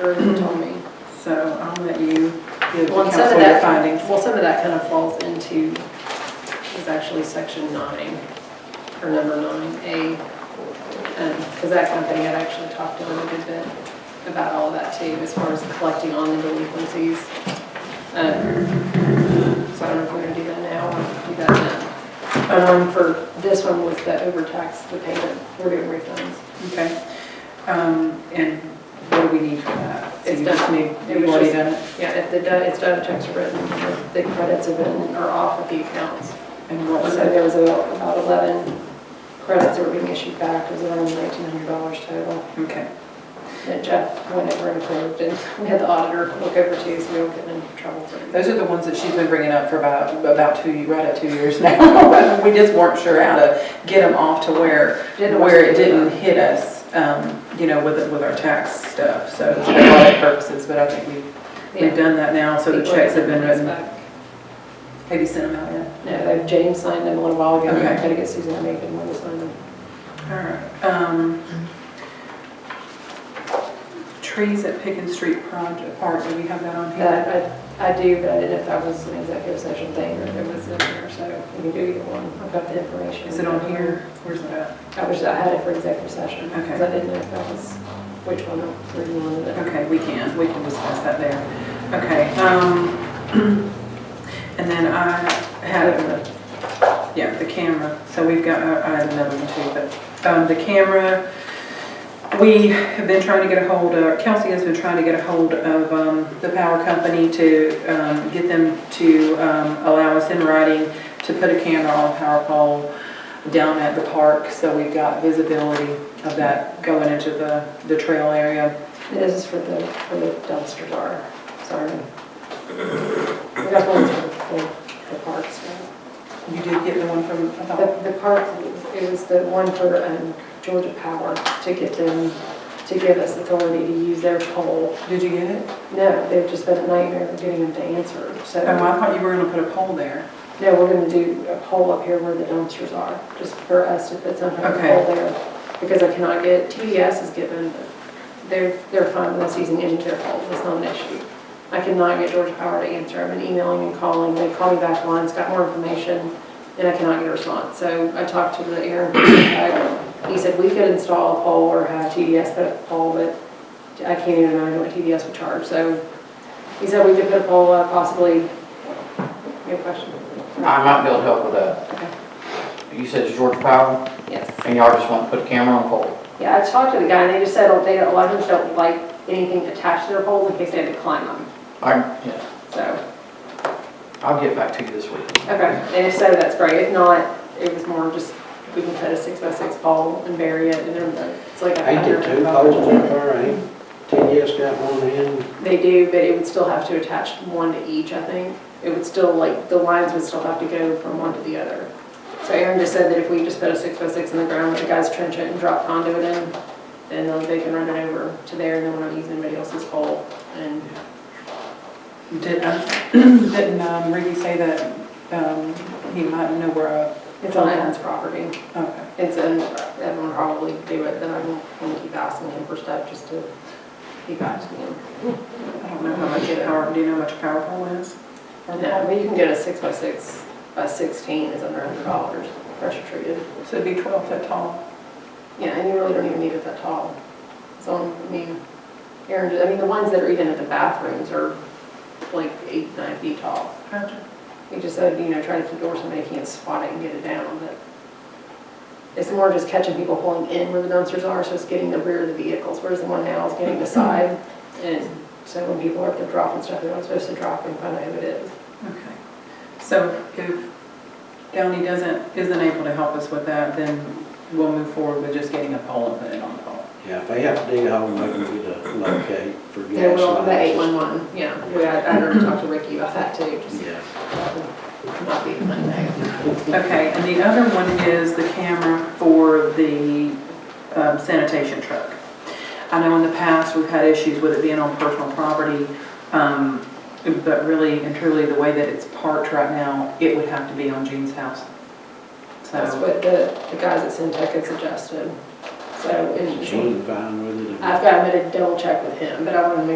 Irvin told me. So I'll let you give the Well, and council some of your that, findings. well, some of that kind of falls into, is actually section nine, or number nine, A. Because that company had actually talked to them a good bit about all that too, as far as collecting on the delinquencies. Um, So I don't know if we're gonna do that now or do that then. But um, for this one was the overtax, the payment, we're doing refunds. Okay. Um, And what do we need for that? So It's you just done. need- It You've was already just- done it? Yeah, if the, di- it's done, checks are written, the credits have been, are off of the accounts. And what was So it? there was about about 11 credits that were being issued back, it was around $1,900 total. Okay. That Jeff went over and approved, and we had the auditor look over too, so we don't get in trouble. for it. Those are the ones that she's been bringing up for about, about two, right at two years now. We just weren't sure how to get them off to where, Didn't where it want to do didn't that. hit us, um, you know, with, with our tax stuff. So for a lot of purposes, but I think we've, we've Yeah. done that now. So the People checks have been sending written. those back. Have you sent them out yet? No, they- James signed them a little while ago, I Okay. had to get Susan to make them when they signed them. All right, um, trees at Pickens Street Proj- Park, do we have that on here? That, I, I do, but I didn't know if that was an executive session thing or if it was in there, so we can do either one, I've got the information. Is it on here? Where's it at? I wish I had it for executive session, because Okay. I didn't know if that was, which one, or you wanted it. Okay, we can, we can discuss that there. Okay, um, and then I had, yeah, the camera, so we've got, I had another one too, but, um, the camera, we have been trying to get a hold of, Kelsey has been trying to get a hold of, um, the power company to, um, get them to, um, allow us in writing to put a camera on a power pole down at the park, so we've got visibility of that going into the, the trail area. This is for the, for the dumpster bar, sorry. We got one for the, the parks, right? You did get the one from, I thought, The, the park, it was the one for, um, Georgia Power to get them, to give us authority to use their pole. did you get it? No, they've just been a nightmare of getting them to answer, Oh, I so. thought you were gonna put a pole there. No, we're gonna do a pole up here where the dumpsters are, just for us to put some kind of Okay. pole there. Because I cannot get, TDS is given, but they're, they're fine with us using any of their pole, it's not an issue. I cannot get Georgia Power to answer, I've been emailing and calling, they call me back once, got more information, and I cannot get a response. So I talked to the air, guy. he said, we could install a pole or have TDS put up a pole, but I can't even imagine what TDS would charge, so he said we could put a pole up possibly. You have a question? I might be able to help with that. Okay. You said it's George Power, Yes. and y'all just want to put a camera on pole. Yeah, I talked to the guy, and they just said, oh, they, a lot of them don't like anything attached to their poles in case they had to climb them, I, yeah, so, I'll get back to you this week. okay. And if so, that's great, if not, it was more just, we can put a six by six pole and bury it, and then it's like. a I did hundred two dollars. poles up there, I think TDS got one in, They do, but it would still have to attach one to each, I think. It would still, like, the lines would still have to go from one to the other. So Aaron just said that if we just put a six by six in the ground, let the guys trench it and drop conduit in, then they'll- they can run it over to there, and then we're not using anybody else's pole, and Did, um, didn't um, Ricky say that, um, he might know where a, It's on Ed's property. okay. It's in, Ed will probably do it, then I'm gonna keep asking him for stuff just to keep asking him. I don't know how much a power, do you know how much a power pole is? Or No, but you can get a six by six, by sixteen is under a hundred dollars, pressure treated. pole? So it'd be twelve foot tall. Yeah, and you really don't even need it that tall. So, I mean, Aaron, I mean, the ones that are even at the bathrooms are like eight, nine feet tall. Gotcha. He just said, you know, try to keep doors, somebody can't spot it and get it down, but it's more just catching people pulling in where the dumpsters are, so it's getting the rear of the vehicles, whereas the one now is getting the side. And so when people are up there dropping stuff, they're not supposed to drop and find out who it is. Okay. So if Downey doesn't, isn't able to help us with that, then we'll move forward with just getting a pole and putting it on the pole. yeah, if they have to dig a hole, maybe we to locate for gas. Yeah, well, the lines. eight one one, yeah, we, I, I already talked to Ricky about that too, just Yeah, not being Monday. Okay, and the other one is the camera for the um, sanitation truck. I know in the past, we've had issues with it being on personal property, um, but really and truly, the way that it's parked right now, it would have to be on Jean's house. That's So, what the, the guys at Syntec had suggested, so. and- Gene fine with it. I've got, I'm gonna double check with him, but I wanted to make